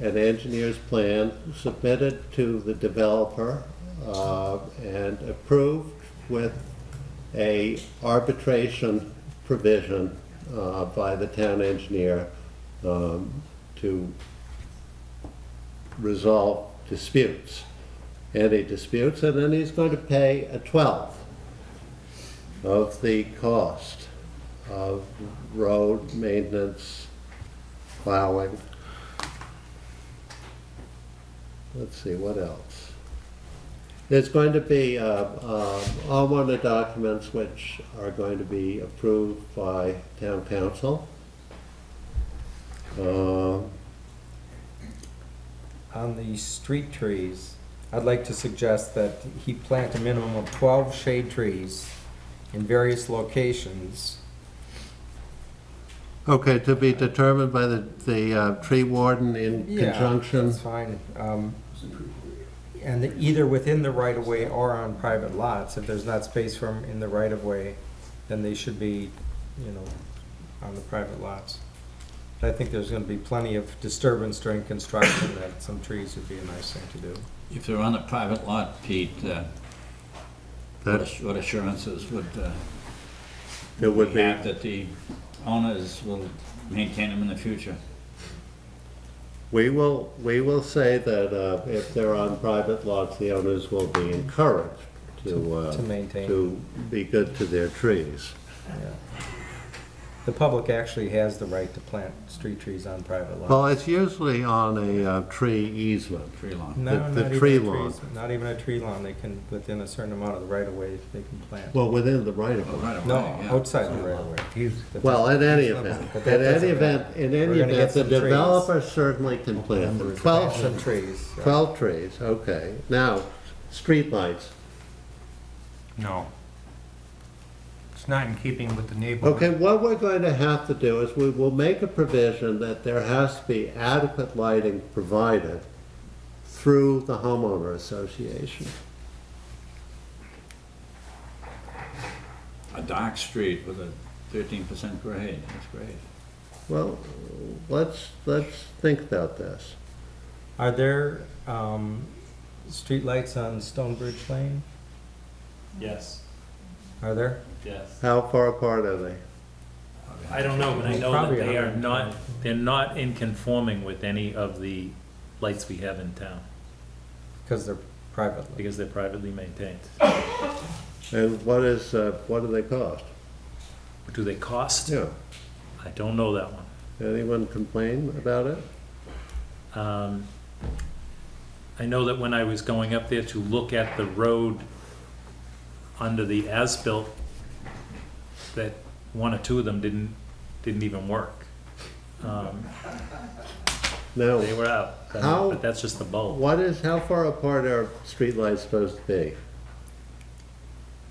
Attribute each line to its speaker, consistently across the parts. Speaker 1: an engineer's plan submitted to the developer uh, and approved with a arbitration provision uh, by the town engineer um, to resolve disputes, any disputes, and then he's going to pay a twelfth of the cost of road maintenance, plowing. Let's see, what else? There's going to be, uh, uh, all one of the documents which are going to be approved by town council. Uh,
Speaker 2: On the street trees, I'd like to suggest that he plant a minimum of 12 shade trees in various locations.
Speaker 1: Okay, to be determined by the, the uh, tree warden in
Speaker 2: Yeah,
Speaker 1: conjunction.
Speaker 2: That's fine. Um, And either within the right-of-way or on private lots, if there's not space for them in the right-of-way, then they should be, you know, on the private lots. But I think there's gonna be plenty of disturbance during construction, that some trees would be a nice thing to do.
Speaker 3: If they're on a private lot, Pete, uh, what
Speaker 1: That
Speaker 3: ass- what assurances would uh,
Speaker 1: it would
Speaker 3: we
Speaker 1: be,
Speaker 3: have that the owners will maintain them in the future?
Speaker 1: we will, we will say that uh, if they're on private lots, the owners will be encouraged to, uh,
Speaker 2: To maintain.
Speaker 1: To be good to their trees.
Speaker 2: Yeah. The public actually has the right to plant street trees on private
Speaker 1: Well,
Speaker 2: lots.
Speaker 1: it's usually on a uh, tree easement.
Speaker 3: Tree lawn.
Speaker 2: No,
Speaker 1: the- the
Speaker 2: not
Speaker 1: tree
Speaker 2: even a
Speaker 1: lawn.
Speaker 2: trees, not even a tree lawn, they can, within a certain amount of the right of way, they can plant.
Speaker 1: Well, within the right
Speaker 3: Oh,
Speaker 1: of way.
Speaker 3: right away,
Speaker 2: No,
Speaker 3: yeah.
Speaker 2: outside the right of way. But
Speaker 1: Well,
Speaker 2: that-
Speaker 1: in any
Speaker 2: but
Speaker 1: event,
Speaker 2: that
Speaker 1: in any
Speaker 2: doesn't
Speaker 1: event,
Speaker 2: matter.
Speaker 1: in
Speaker 2: We're
Speaker 1: any
Speaker 2: gonna get
Speaker 1: event, the
Speaker 2: some trees.
Speaker 1: developer certainly can plant them. Twelve,
Speaker 2: Some trees. yeah.
Speaker 1: twelve trees, okay. Now, streetlights.
Speaker 4: No. It's not in keeping with the neighborhood.
Speaker 1: Okay, what we're going to have to do is we will make a provision that there has to be adequate lighting provided through the homeowner association.
Speaker 3: A dark street with a thirteen percent grade, that's great.
Speaker 1: Well, let's, let's think about this.
Speaker 2: Are there, um, streetlights on Stonebridge Lane?
Speaker 5: Yes,
Speaker 2: Are there?
Speaker 5: yes.
Speaker 1: How far apart are they?
Speaker 5: I don't know, but I know
Speaker 2: Probably
Speaker 5: that they
Speaker 2: are.
Speaker 5: are not, they're not in conforming with any of the lights we have in town,
Speaker 2: Cause they're private.
Speaker 5: because they're privately maintained.
Speaker 1: And what is, uh, what do they cost?
Speaker 5: Do they cost?
Speaker 1: Yeah,
Speaker 5: I don't know that one.
Speaker 1: anyone complain about it?
Speaker 5: Um, I know that when I was going up there to look at the road under the as-built, that one or two of them didn't, didn't even work. Um,
Speaker 1: Now,
Speaker 5: They were out,
Speaker 1: How-
Speaker 5: but that's just the bulb.
Speaker 1: what is, how far apart are streetlights supposed to be?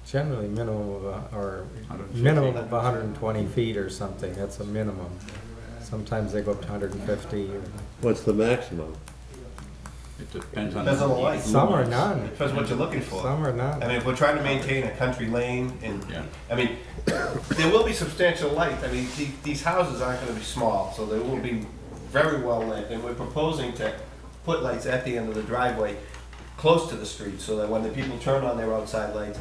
Speaker 2: Generally minimum of, a- or
Speaker 3: 150.
Speaker 2: minimum of hundred and twenty feet or something, that's a minimum. Sometimes they go up to hundred and fifty or.
Speaker 1: What's the maximum?
Speaker 3: It depends on.
Speaker 6: Depends on the light.
Speaker 2: Some are none,
Speaker 6: Depends what you're looking for.
Speaker 2: some are
Speaker 6: I
Speaker 2: none.
Speaker 6: mean, if we're trying to maintain a country lane and,
Speaker 3: Yeah.
Speaker 6: I mean, there will be substantial light. I mean, the- these houses aren't gonna be small, so they will be very well lit. And we're proposing to put lights at the end of the driveway, close to the street, so that when the people turn on their outside lights,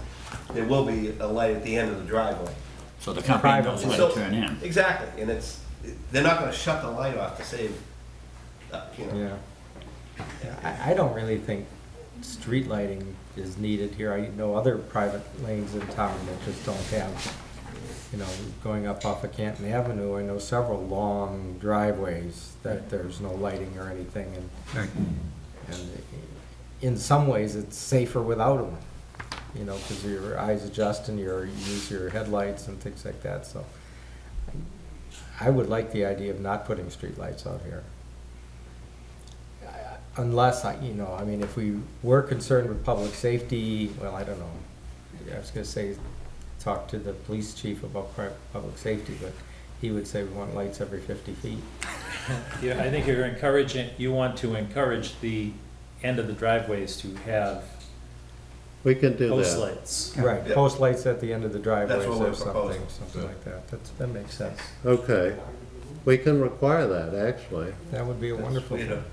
Speaker 6: there will be a light at the end of the driveway.
Speaker 3: So the company knows
Speaker 2: Private.
Speaker 3: where
Speaker 6: So-
Speaker 3: to turn in.
Speaker 6: Exactly, and it's, they're not gonna shut the light off to save, uh, you know.
Speaker 2: Yeah. Yeah, I, I don't really think street lighting is needed here. I know other private lanes in town that just don't have, you know, going up off of Canton Avenue, I know several long driveways that there's no lighting or anything and,
Speaker 4: Right.
Speaker 2: and in some ways, it's safer without them. You know, cause your eyes adjust and your, you use your headlights and things like that, so. I would like the idea of not putting streetlights out here unless, I- you know, I mean, if we were concerned with public safety, well, I don't know. I was gonna say, talk to the police chief about pri- public safety, but he would say we want lights every fifty feet.
Speaker 5: Yeah, I think you're encouraging, you want to encourage the end of the driveways to have
Speaker 1: We can do
Speaker 5: post
Speaker 1: that.
Speaker 5: lights.
Speaker 2: Right,
Speaker 6: Yeah.
Speaker 2: post lights at the end of the driveways
Speaker 6: what we're
Speaker 2: or something,
Speaker 6: proposing.
Speaker 2: something like that. That's, that makes sense.
Speaker 1: Okay, we can require that, actually.
Speaker 2: That would be a
Speaker 6: That's
Speaker 2: wonderful
Speaker 6: way to-
Speaker 2: thing.